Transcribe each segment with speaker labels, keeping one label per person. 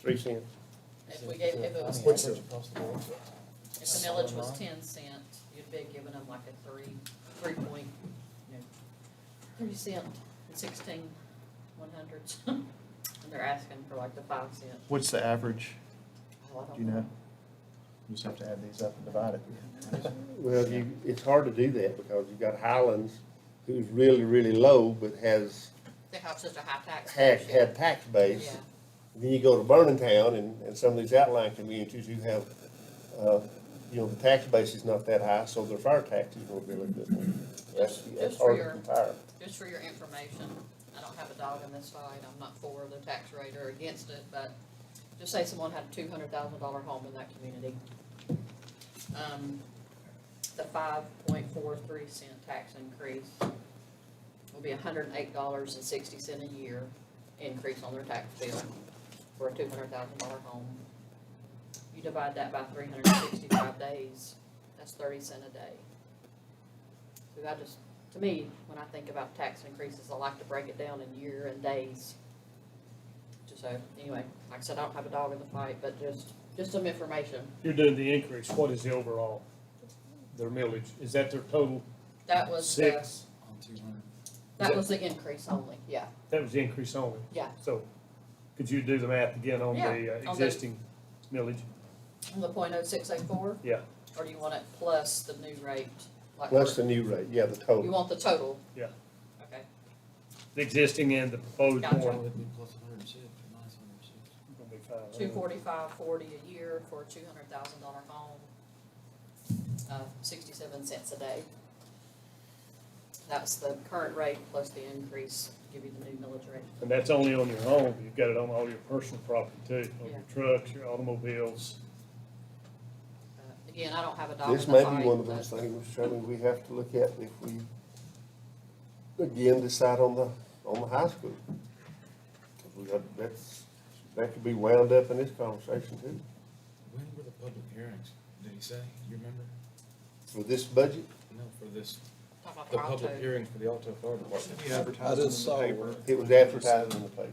Speaker 1: three cents.
Speaker 2: If we gave, if it was,
Speaker 1: What's
Speaker 2: if
Speaker 1: the-
Speaker 2: the millage was ten cent, you'd be giving them like a three, three point, you know, three cent, sixteen, one hundreds. And they're asking for like the five cent.
Speaker 3: What's the average?
Speaker 2: Oh, I don't
Speaker 3: Do you know? You just have to add these up and divide it.
Speaker 1: Well, you, it's hard to do that because you've got Highlands who's really, really low, but has,
Speaker 2: They have such a high tax.
Speaker 1: had,
Speaker 2: ratio.
Speaker 1: had tax base.
Speaker 2: Yeah.
Speaker 1: Then you go to Vernon Town and, and some of these outlying communities who have, uh, you know, the tax base is not that high, so their fire taxes will be a little bit more. That's, that's
Speaker 2: Just for
Speaker 1: hard to
Speaker 2: your-
Speaker 1: compare.
Speaker 2: Just for your information, I don't have a dog in this fight, I'm not for the tax rate or against it, but just say someone had a two hundred thousand dollar home in that community. Um, the five point four three cent tax increase will be hundred and eight dollars and sixty cent a year increase on their tax bill for a two hundred thousand dollar home. You divide that by three hundred and sixty-five days, that's thirty cent a day. So I just, to me, when I think about tax increases, I like to break it down in year and days. Just so, anyway, like I said, I don't have a dog in the fight, but just, just some information.
Speaker 4: You're doing the increase, what is the overall, their millage, is that their total?
Speaker 2: That was uh, the,
Speaker 4: Six,
Speaker 3: On two hundred.
Speaker 2: that was the increase only, yeah,
Speaker 4: that was the increase only,
Speaker 2: yeah.
Speaker 4: so could you do the math again on the
Speaker 2: Yeah,
Speaker 4: uh,
Speaker 2: on the-
Speaker 4: existing millage?
Speaker 2: On The point oh six eight four?
Speaker 4: Yeah.
Speaker 2: Or do you want it plus the new rate? like
Speaker 1: Plus the new rate, yeah, the
Speaker 2: You
Speaker 1: total.
Speaker 2: want the total?
Speaker 4: Yeah.
Speaker 2: Okay,
Speaker 4: The existing and the proposed
Speaker 2: Gotcha.
Speaker 4: one? Gonna
Speaker 5: Would be plus a hundred and six, or minus a hundred and six.
Speaker 4: be five.
Speaker 2: two forty-five forty a year for a two hundred thousand dollar home, uh, sixty-seven cents a day. That's the current rate plus the increase, give you the new millage rate.
Speaker 4: And that's only on your home, you've got it on all your personal property too, on
Speaker 2: Yeah.
Speaker 4: your trucks, your automobiles.
Speaker 2: Uh, Again, I don't have a dog in the
Speaker 1: This
Speaker 2: fight.
Speaker 1: may be one of
Speaker 2: but-
Speaker 1: those things, Shirley, we have to look at if we, again, decide on the, on the high school. 'Cause we got- That's, that could be wound up in this conversation too.
Speaker 5: When were the public hearings, did he say, you remember?
Speaker 1: For this budget,
Speaker 5: No, for this,
Speaker 2: Talk about
Speaker 5: the
Speaker 2: auto.
Speaker 5: public hearings for the Alto Fire Department.
Speaker 6: We advertised it in the paper.
Speaker 1: it was advertised in the paper.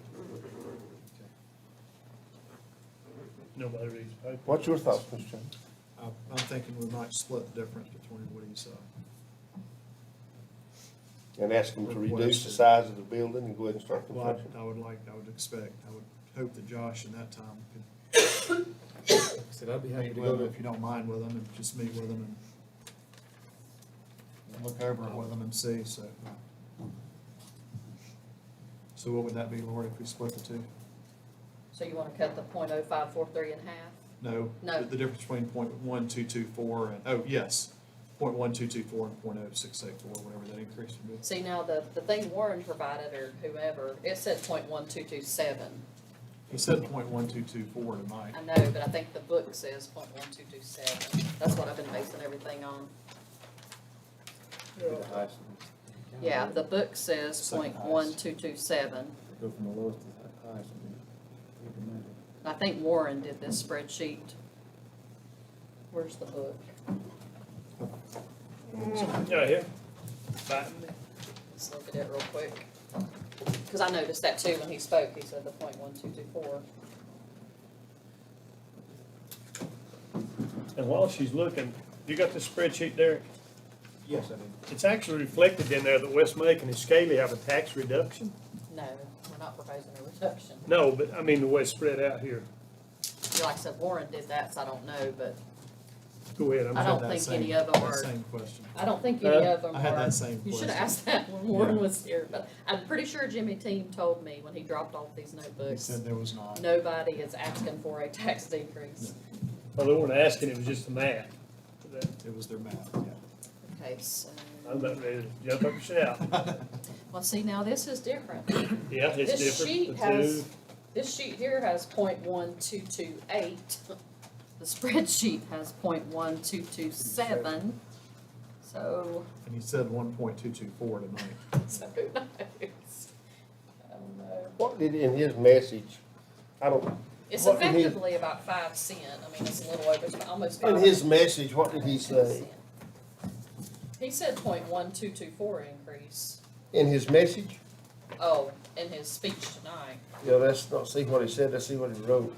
Speaker 4: Nobody reads the paper.
Speaker 1: What's your thoughts, Mr. Chairman?
Speaker 6: I- I'm thinking we might split the difference between what he's, uh,
Speaker 1: And ask them to reduce the size of the building and go ahead and start
Speaker 6: well, I'd-
Speaker 1: construction.
Speaker 6: I would like, I would expect, I would hope that Josh in that time could
Speaker 5: I Said I'd be happy
Speaker 6: meet
Speaker 5: to
Speaker 6: with
Speaker 5: go
Speaker 6: him,
Speaker 5: to.
Speaker 6: if you don't mind with him, and just meet with him and look over it with him and see, so. So what would that be, Lori, if we split the two?
Speaker 2: So you wanna cut the point oh five four three in half?
Speaker 6: No?
Speaker 2: No.
Speaker 6: the- The difference between point one two two four and, oh, yes, point one two two four and point oh six eight four, whatever that increase would be.
Speaker 2: See, now the, the thing Warren provided or whoever, it said point one two two seven.
Speaker 6: He said point one two two four tonight.
Speaker 2: I know, but I think the book says point one two two seven. That's what I've been basing everything on.
Speaker 1: To the high school.
Speaker 2: Yeah, the book says
Speaker 5: Second
Speaker 2: point
Speaker 5: highest.
Speaker 2: one two two seven.
Speaker 5: Go from the lowest to the hi- highest. I mean, you can imagine.
Speaker 2: I think Warren did this spreadsheet. Where's the book?
Speaker 4: Yeah, here. Fighting me.
Speaker 2: Let's look at it real quick. Cause I noticed that too when he spoke. He said the point one two two four.
Speaker 4: And while she's looking, you got the spreadsheet there,
Speaker 5: Yes, I did.
Speaker 4: it's actually reflected in there that West Macon and Scaly have a tax reduction.
Speaker 2: No, we're not proposing a reduction.
Speaker 4: No, but I mean the way it's spread out here.
Speaker 2: Yeah, Like I said, Warren did that, so I don't know, but
Speaker 4: Go ahead, I'm
Speaker 2: I
Speaker 4: sorry.
Speaker 2: don't
Speaker 6: That
Speaker 2: think
Speaker 6: same-
Speaker 2: any of them
Speaker 6: that
Speaker 2: are-
Speaker 6: Same question.
Speaker 2: I don't think any
Speaker 4: Huh?
Speaker 2: of them are.
Speaker 6: Uh, I had that same question.
Speaker 2: You should have asked that when Warren was here, but I'm pretty sure Jimmy Team told me when he dropped off these
Speaker 6: He
Speaker 2: notebooks,
Speaker 6: said there was not.
Speaker 2: nobody is asking for a tax decrease.
Speaker 4: Well, they weren't asking, it was just the math.
Speaker 6: It was their math, yeah.
Speaker 2: Okay, so,
Speaker 4: I'm about ready to jump up and shout.
Speaker 2: well, see, now this is different.
Speaker 4: Yeah, it's
Speaker 2: This sheet
Speaker 4: different.
Speaker 2: has, this sheet here has point one two two eight. The spreadsheet has point one two two seven. So,
Speaker 6: And he said one point two two four tonight.
Speaker 2: so who knows? I don't know.
Speaker 1: What did, in his message, I don't,
Speaker 2: It's
Speaker 1: What in his-
Speaker 2: effectively about five cent, I mean, it's a little over, it's almost five.
Speaker 1: in his message, what did he say?
Speaker 2: He said point one two two four increase,
Speaker 1: In his message?
Speaker 2: oh, in his speech tonight.
Speaker 1: Yeah, let's not see what he said, let's see what he wrote.